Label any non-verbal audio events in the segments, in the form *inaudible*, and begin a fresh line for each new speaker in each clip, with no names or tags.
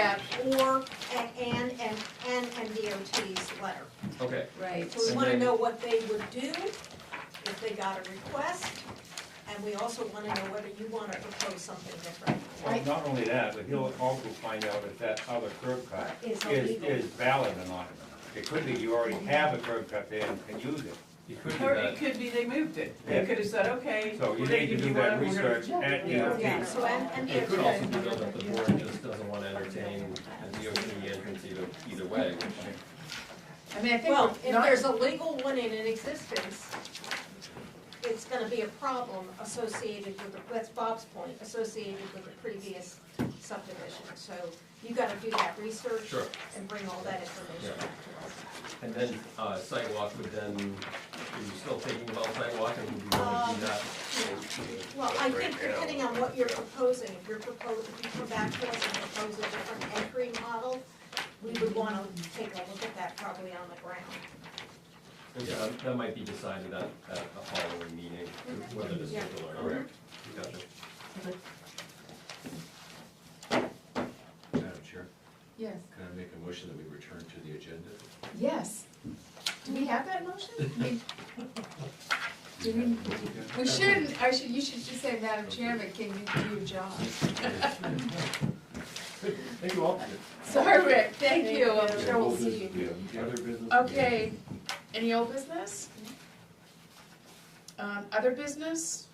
that or an and, and, and, and DOT's letter.
Okay,
Right.
So we
And
wanna
then-
know what they would do if they got a request, and we also wanna know whether you wanna propose something different.
Right.
Well, not only that, but he'll also find out if that other curb cut
Is
is,
illegal. Mm-hmm.
is valid or not. It could be you already have a curb cut there and can use it.
you could do
Or it
that.
could be they moved it.
Yeah.
They could have said, okay.
So you
we're gonna
need to
give
do
you
that
one, we're gonna-
research at
Yeah.
Yeah,
DOT.
so and, and
It could also be
DOT.
done if the board just doesn't want to entertain a DOT entrance either, either way, which
I mean, I think
Well,
we're
if there's
not,
a legal one in an existence, it's gonna be a problem associated with, the- that's Bob's point, associated with the previous subdivision. So you gotta do that research
Sure.
and bring all that information back to us.
And then, uh, sidewalk would then, are you still thinking about sidewalk and would you want
Um,
to do that?
Well, I think depending on what you're proposing, if you're proposing, if you come back to us and propose a different entry model, we would wanna take a look at that probably on the ground.
And so that- that might be decided at, at a following meeting, whether this is
Yeah.
or not. Correct. Gotcha.
Madam Chair,
yes,
can I make a motion that we return to the agenda?
yes. Do we have that motion? I mean, Do we, we shouldn't, I should, you should just say, Madam Chairman, can you do your job?
Thank you all.
Sorry, Rick, thank you, I'm sure we'll see you.
Other business?
Okay, any old business? Um, other business?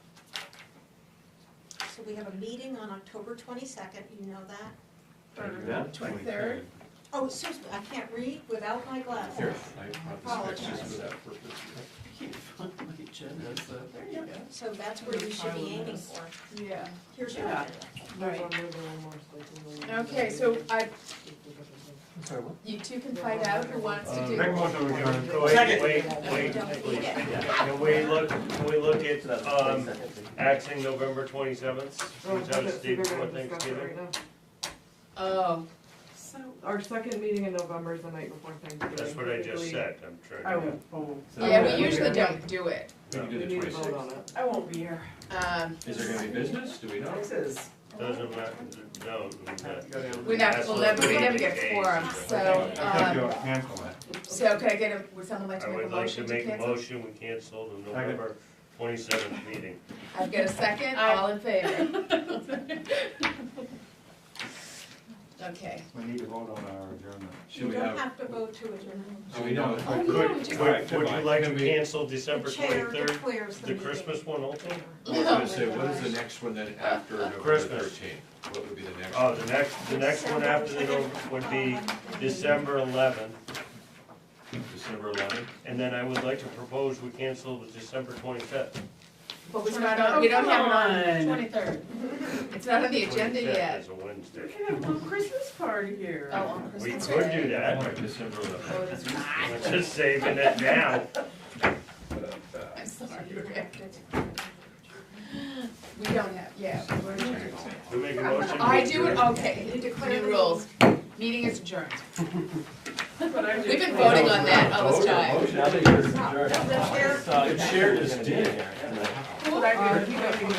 So we have a meeting on October twenty-second, you know that?
Twenty-third?
Oh, excuse me, I can't read without my
Here,
glasses.
I brought this back just for that purpose.
*laughs* You found my agenda, so there you go.
So that's where you should be aiming for.
Yeah.
Here's your
Yeah.
agenda.
Right.
Okay, so I, you two can fight out who wants
Uh,
to do.
Uh, Make a motion to adjourn. So
Second.
wait, wait, wait,
Don't need
wait.
it.
Can we look, can we look at, um, axing November twenty-seventh? Which I was dating before Thanksgiving.
Oh,
So,
Our second meeting in November is the night before Thanksgiving.
That's what I just
typically.
said, I'm trying.
I won't, I won't,
yeah, we usually don't do it.
We can
We
do
need
the
to vote on
twenty-sixth.
it.
I won't be here.
Um,
Is there gonna be business? Do we know?
This is,
Doesn't matter, no.
we're not, we'll never, we never get quorum, so,
I think
um,
you'll cancel it.
so could I get a, would someone like
I
to make a
would like
motion
to
to
make a
cancel?
motion, we cancel the November twenty-seventh meeting.
I've got a second, all in *laughs* favor? Okay.
We need to vote on our adjournment.
Should
You
we
don't
have,
have to vote to adjourn.
do we know?
Oh, yeah, we just-
Would, would you like to
Can we-
cancel
The
December
chair
twenty-third,
declares the
the
meeting.
Christmas one also?
I was gonna say, what is the next one then after November
Uh, Christmas.
thirteenth? What would be the next?
Oh,
one?
the next, the next one after the November would be December eleventh.
December eleventh?
And then I would like to propose we cancel the December twenty-fifth.
But we're not on, we don't have it Oh, on
Oh, come on.
twenty-third. It's not on the agenda yet.
Twenty-fifth is a
we
Wednesday.
can have a little Christmas party here.
Oh, on
We
Christmas
could do
Day.
that,
December eleventh.
Oh, that's
*laughs*
right.
we're just saving it now.
I'm sorry, Rick. We don't have, yeah. we're-
We make a motion. to
I do it,
adjourn.
okay, you declare the rules. Meeting is adjourned.
But I'm just-
We've been voting on that all this time.
Now that you're adjourned.
No, the chair
The chair is dead.
Uh,
But I do- you don't need to